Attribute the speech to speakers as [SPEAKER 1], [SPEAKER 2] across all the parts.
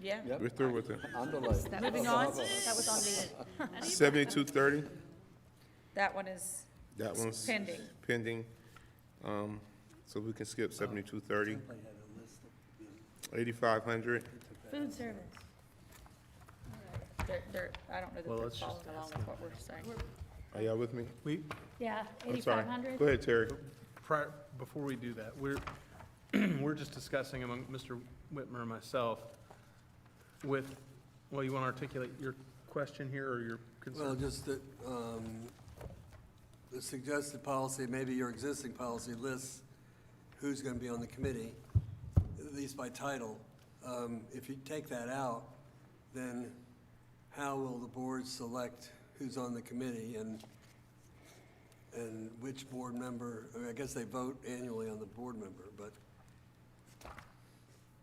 [SPEAKER 1] Yeah.
[SPEAKER 2] Yep.
[SPEAKER 3] We're through with it.
[SPEAKER 2] Underlaid.
[SPEAKER 1] Moving on, that was on the,
[SPEAKER 3] Seventy-two thirty,
[SPEAKER 1] that one is
[SPEAKER 3] that one's
[SPEAKER 1] pending.
[SPEAKER 3] pending. Um, so we can skip seventy-two thirty. Eighty-five hundred,
[SPEAKER 4] Food service.
[SPEAKER 1] They're, they're, I don't know that
[SPEAKER 5] Well,
[SPEAKER 1] they're
[SPEAKER 5] let's just
[SPEAKER 1] following along with what we're saying.
[SPEAKER 3] are y'all with me?
[SPEAKER 5] We,
[SPEAKER 4] Yeah,
[SPEAKER 3] I'm sorry.
[SPEAKER 4] eighty-five hundred.
[SPEAKER 3] Go ahead, Terry.
[SPEAKER 5] prior, before we do that, we're, we're just discussing among Mr. Whitmer and myself with, well, you want to articulate your question here or your
[SPEAKER 6] Well,
[SPEAKER 5] concern?
[SPEAKER 6] just that, um, the suggested policy, maybe your existing policy lists who's gonna be on the committee, at least by title. Um, if you take that out, then how will the board select who's on the committee and, and which board member, I mean, I guess they vote annually on the board member, but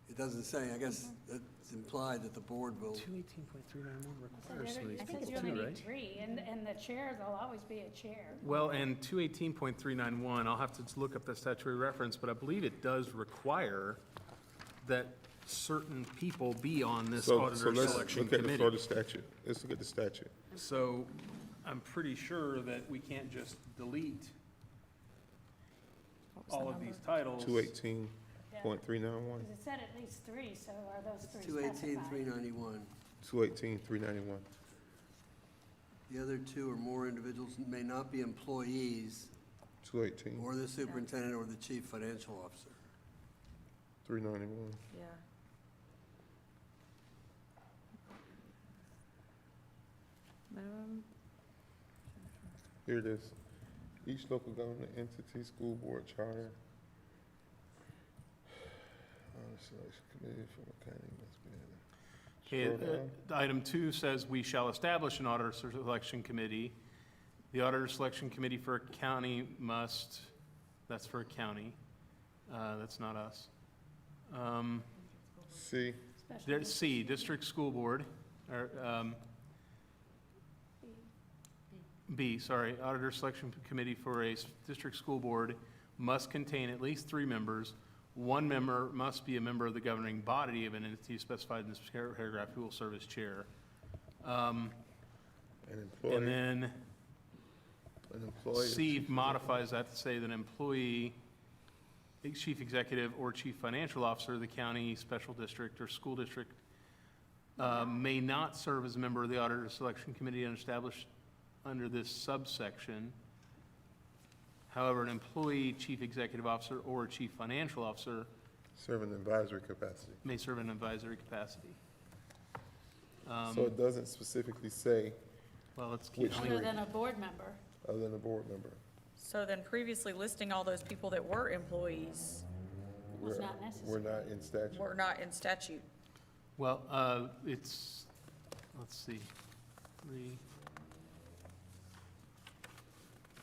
[SPEAKER 6] it doesn't say, I guess it's implied that the board will,
[SPEAKER 5] Two eighteen point three nine one requires somebody
[SPEAKER 4] I
[SPEAKER 5] to
[SPEAKER 4] think
[SPEAKER 5] be
[SPEAKER 4] you only
[SPEAKER 5] two,
[SPEAKER 4] need
[SPEAKER 5] right?
[SPEAKER 4] three, and, and the chair, there'll always be a chair.
[SPEAKER 5] Well, and two eighteen point three nine one, I'll have to look up the statutory reference, but I believe it does require that certain people be on this
[SPEAKER 3] So, so
[SPEAKER 5] auditor
[SPEAKER 3] let's
[SPEAKER 5] selection
[SPEAKER 3] look at the
[SPEAKER 5] committee.
[SPEAKER 3] Florida statute. Let's look at the statute.
[SPEAKER 5] So I'm pretty sure that we can't just delete all of these titles.
[SPEAKER 3] Two eighteen point three nine one,
[SPEAKER 4] Because it said at least three, so are those three
[SPEAKER 6] two eighteen, three
[SPEAKER 4] specified?
[SPEAKER 6] ninety-one.
[SPEAKER 3] two eighteen, three ninety-one.
[SPEAKER 6] The other two or more individuals may not be employees
[SPEAKER 3] Two eighteen,
[SPEAKER 6] or the superintendent or the chief financial officer.
[SPEAKER 3] three ninety-one.
[SPEAKER 1] Yeah. Minimum,
[SPEAKER 3] Here it is. Each local government entity, school board charter. Honor selection committee for the county must be in it.
[SPEAKER 5] Okay,
[SPEAKER 3] Scroll down.
[SPEAKER 5] uh, Item two says, "We shall establish an auditor selection committee. The auditor selection committee for a county must," that's for a county, uh, that's not us. Um,
[SPEAKER 3] C,
[SPEAKER 4] Special
[SPEAKER 5] There's
[SPEAKER 4] needs.
[SPEAKER 5] C, district school board, or, um, B, sorry, auditor selection committee for a s- district school board must contain at least three members. One member must be a member of the governing body of an entity specified in this par- paragraph who will serve as chair. Um,
[SPEAKER 3] an
[SPEAKER 5] And
[SPEAKER 3] employee,
[SPEAKER 5] then
[SPEAKER 3] an employee.
[SPEAKER 5] C modifies that to say that an employee, ex- chief executive or chief financial officer of the county, special district, or school district uh, may not serve as a member of the auditor selection committee and established under this subsection. However, an employee, chief executive officer, or chief financial officer
[SPEAKER 3] Serve in advisory capacity.
[SPEAKER 5] may serve in advisory capacity. Um,
[SPEAKER 3] So it doesn't specifically say
[SPEAKER 5] Well, let's
[SPEAKER 3] which
[SPEAKER 5] keep
[SPEAKER 4] Other
[SPEAKER 3] three,
[SPEAKER 4] than a board member.
[SPEAKER 3] other than a board member.
[SPEAKER 1] so then previously listing all those people that were employees
[SPEAKER 3] We're-
[SPEAKER 4] Was not necessary.
[SPEAKER 3] We're not in statute.
[SPEAKER 1] were not in statute.
[SPEAKER 5] Well, uh, it's, let's see, three.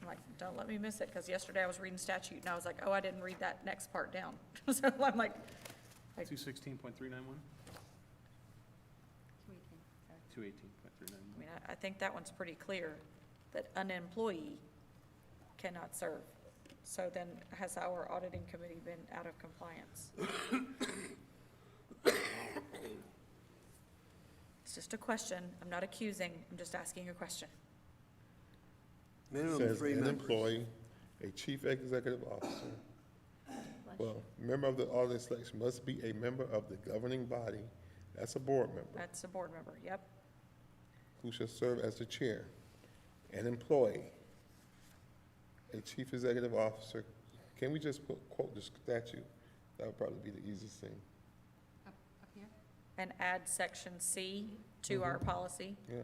[SPEAKER 1] I'm like, don't let me miss it, because yesterday I was reading statute, and I was like, oh, I didn't read that next part down. So I'm like,
[SPEAKER 5] Two sixteen point three nine one? Two eighteen point three
[SPEAKER 1] I
[SPEAKER 5] nine
[SPEAKER 1] mean, I, I think that one's pretty clear, that an employee cannot serve. So then, has our auditing committee been out of compliance? It's just a question, I'm not accusing, I'm just asking a question.
[SPEAKER 6] Minimum
[SPEAKER 3] Says
[SPEAKER 6] three
[SPEAKER 3] An
[SPEAKER 6] members.
[SPEAKER 3] employee, a chief executive officer. Well, member of the audit selection must be a member of the governing body, that's a board member,
[SPEAKER 1] That's a board member, yep.
[SPEAKER 3] who shall serve as the chair. An employee, a chief executive officer, can we just put- quote the statute? That would probably be the easiest thing,
[SPEAKER 1] And add section C to our policy.
[SPEAKER 3] yeah.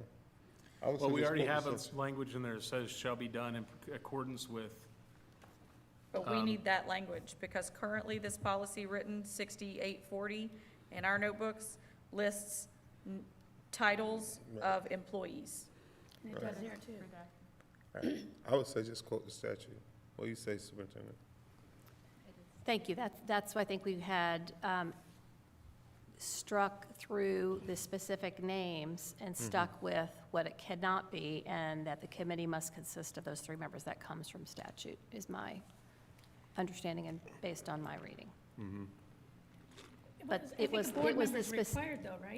[SPEAKER 3] I would
[SPEAKER 5] Well,
[SPEAKER 3] say
[SPEAKER 5] we
[SPEAKER 3] just
[SPEAKER 5] already
[SPEAKER 3] quote
[SPEAKER 5] have
[SPEAKER 3] the
[SPEAKER 5] a
[SPEAKER 3] statute.
[SPEAKER 5] language in there that says shall be done in accordance with,
[SPEAKER 1] But we
[SPEAKER 5] Um,
[SPEAKER 1] need that language, because currently this policy written sixty-eight forty in our notebooks lists n- titles of employees.
[SPEAKER 4] And It does here too.
[SPEAKER 3] Alright, I would say just quote the statute. What do you say, Superintendent?
[SPEAKER 7] Thank you. That's, that's why I think we had um, struck through the specific names and stuck with what it cannot be, and that the committee must consist of those three members. That comes from statute, is my understanding and based on my reading. But
[SPEAKER 4] I
[SPEAKER 7] it
[SPEAKER 4] think a
[SPEAKER 7] was-
[SPEAKER 4] board
[SPEAKER 7] it was the
[SPEAKER 4] member's
[SPEAKER 7] spec-
[SPEAKER 4] Required though, right?